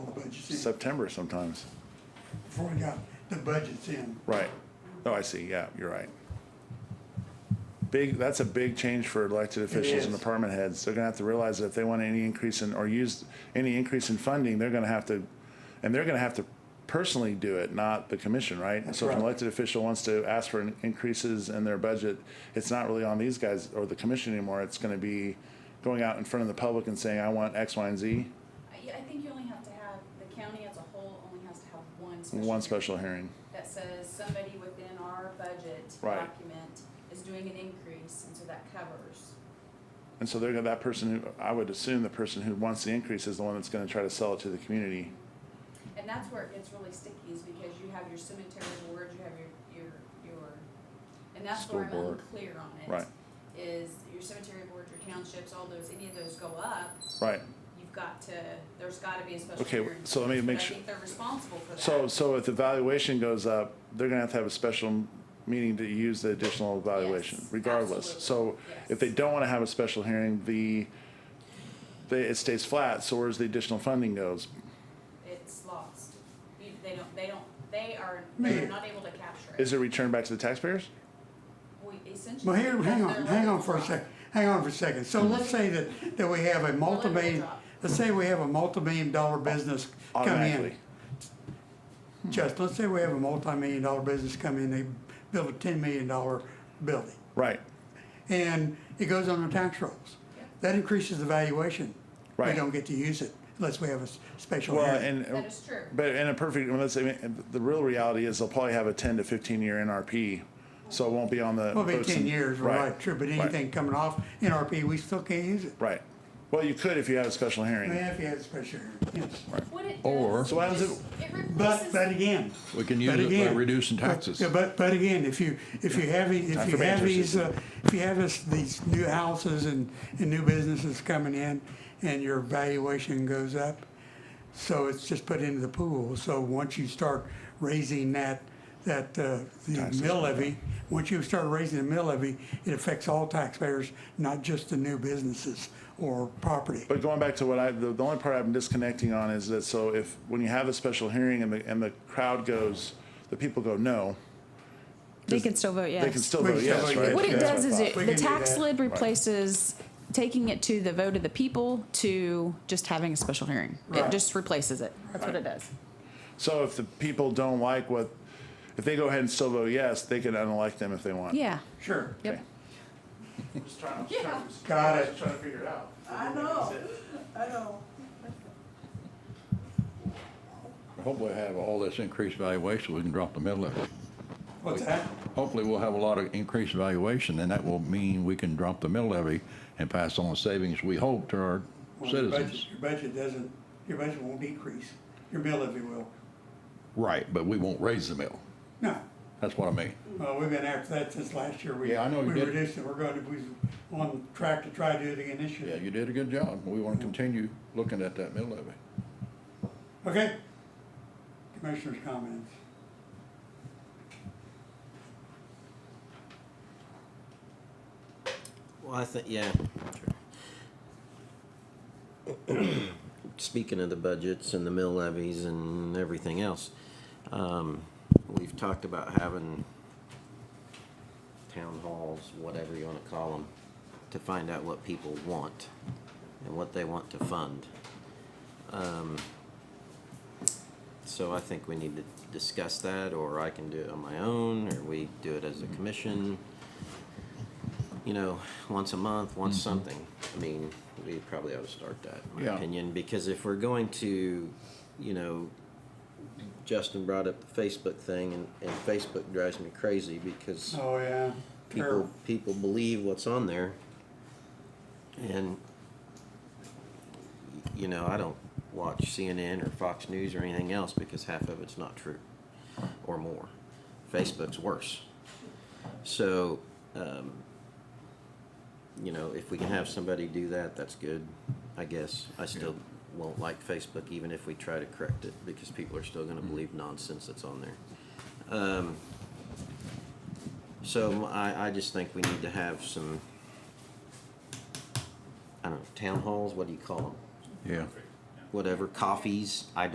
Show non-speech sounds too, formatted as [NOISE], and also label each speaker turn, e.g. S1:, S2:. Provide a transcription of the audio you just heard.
S1: September sometimes.
S2: before we got the budgets in.
S1: Right. Oh, I see. Yeah, you're right. Big, that's a big change for elected officials and
S2: is.
S1: department heads. They're gonna have to realize that if they want any increase in, or use any increase in funding, they're gonna have to, and they're gonna have to personally do it, not the commission, right?
S2: That's
S1: So if an
S2: right.
S1: elected official wants to ask for in- increases in their budget, it's not really on these guys or the commission anymore. It's gonna be going out in front of the public and saying, I want X, Y, and Z,
S3: I, I think you only have to have, the county as a whole only has to have one special.
S1: one
S3: hearing
S1: special hearing.
S3: That says somebody within our budget
S1: Right.
S3: document is doing an increase, and so that covers.
S1: And so they're gonna, that person who, I would assume the person who wants the increase is the one that's gonna try to sell it to the community.
S3: And that's where it gets really sticky, is because you have your cemetery board, you have your, your, your, and that's where I'm
S1: School board.
S3: unclear on it.
S1: Right.
S3: Is your cemetery board, your townships, all those, any of those go up,
S1: Right,
S3: you've got to, there's gotta be a special
S1: Okay,
S3: hearing.
S1: so let me make
S3: But I
S1: sure-
S3: think they're responsible for that.
S1: so, so if the valuation goes up, they're gonna have to have a special meeting to use the additional valuation
S3: Yes,
S1: regardless. So
S3: absolutely,
S1: if they
S3: yes.
S1: don't wanna have a special hearing, the, they, it stays flat, so where's the additional funding goes?
S3: it's lost. You, they don't, they don't, they are,
S2: Me.
S3: they're not able to capture it.
S1: Is it returned back to the taxpayers?
S3: We essentially.
S2: Well, here, hang
S3: they're
S2: on, hang on
S3: letting
S2: for a
S3: it
S2: sec, hang on for a second. So let's say that, that we have a multi-million,
S3: drop.
S2: let's say we have a multi-million dollar business come in.
S1: Automatically.
S2: Just, let's say we have a multi-million dollar business come in, they build a ten million dollar building.
S1: Right,
S2: And it goes on the tax rolls. That increases the valuation. We
S1: Right.
S2: don't get to use it unless we have a s- special
S1: well,
S2: hearing.
S1: and.
S3: That is true.
S1: But in a perfect, well, let's say, the real reality is they'll probably have a ten to fifteen year NRP, so it won't be on the.
S2: Well, it'll be
S1: books in-
S2: ten years, right, sure, but
S1: right,
S2: anything coming off NRP, we still can't use it.
S1: Right. Well, you could if you had a special
S2: Yeah,
S1: hearing.
S2: if you had a special hearing, yes.
S3: What it
S4: Or-
S3: does
S1: So what happens
S3: is
S1: if-
S3: It replaces.
S2: But, but again.
S4: We can use
S2: but
S4: it by
S2: again-
S4: reducing
S2: but-
S4: taxes.
S2: yeah, But, but again, if you, if you have, the- if
S1: Time
S2: you
S1: for
S2: have
S1: banter,
S2: these,
S1: Susan.
S2: uh, if you have this, these new houses and, and new businesses coming in and your valuation goes up, so it's just put into the pool. So once you start raising that, that, uh, the
S1: Taxes,
S2: mill levy, once you start raising the mill levy, it affects all taxpayers, not just the new businesses or property.
S1: But going back to what I, the, the only part I'm disconnecting on is that, so if, when you have a special hearing and the, and the crowd goes, the people go no,
S5: They can still vote yes.
S1: they can still
S2: We
S1: vote
S2: still
S1: yes,
S2: vote
S1: right?
S2: yes.
S5: What it does
S1: That's I
S5: is
S1: thought.
S5: it,
S2: We
S5: the
S2: can do
S5: tax
S2: that.
S5: lid replaces taking it to the vote of the people to just having a special hearing. It
S2: Right.
S5: just replaces it. That's what it does.
S1: So if the people don't like what, if they go ahead and still vote yes, they can unelect them if they want.
S5: Yeah,
S2: Sure.
S5: yep.
S1: Just trying,
S3: Yeah. trying-
S2: Got it. just
S1: trying to figure it out.
S3: I know, I know.
S4: Hopefully we'll have all this increased valuation, we can drop the middle levy.
S2: What's that?
S4: Hopefully we'll have a lot of increased valuation, and that will mean we can drop the middle levy and pass on the savings we hope to our
S2: Well, your budget-
S4: citizens.
S2: Your budget doesn't, your budget won't decrease, your bill, if you will.
S4: Right, but we won't raise the mill.
S2: No,
S4: That's what I mean.
S2: well, we've been after that since last year. We-
S4: Yeah, I know you
S2: We
S4: did.
S2: reduced it, we're going to, we're on track to try to do it again this
S4: Yeah,
S2: year.
S4: you did a good job. We want to continue looking at that mill levy.
S2: Okay? Commissioners' comments.
S6: Well, I think, yeah. [CLEARS THROAT] Speaking of the budgets and the mill levies and everything else, um, we've talked about having town halls, whatever you wanna call them, to find out what people want and what they want to fund. Um, So I think we need to discuss that, or I can do it on my own, or we do it as a commission you know, once a month, once something. I mean, we probably ought to start that, in my
S4: Yeah.
S6: opinion, because if we're going to, you know, Justin brought up the Facebook thing, and, and Facebook drives me crazy because
S2: Oh, yeah.
S6: people people believe what's on there, and you know, I don't watch CNN or Fox News or anything else because half of it's not true, or more. Facebook's worse. So, um, you know, if we can have somebody do that, that's good, I guess. I still won't like Facebook even if we try to correct it because people are still gonna believe nonsense that's on there. Um, so m- I, I just think we need to have some, I don't know, town halls, what do you call them?
S4: Yeah.
S6: Whatever, coffees, I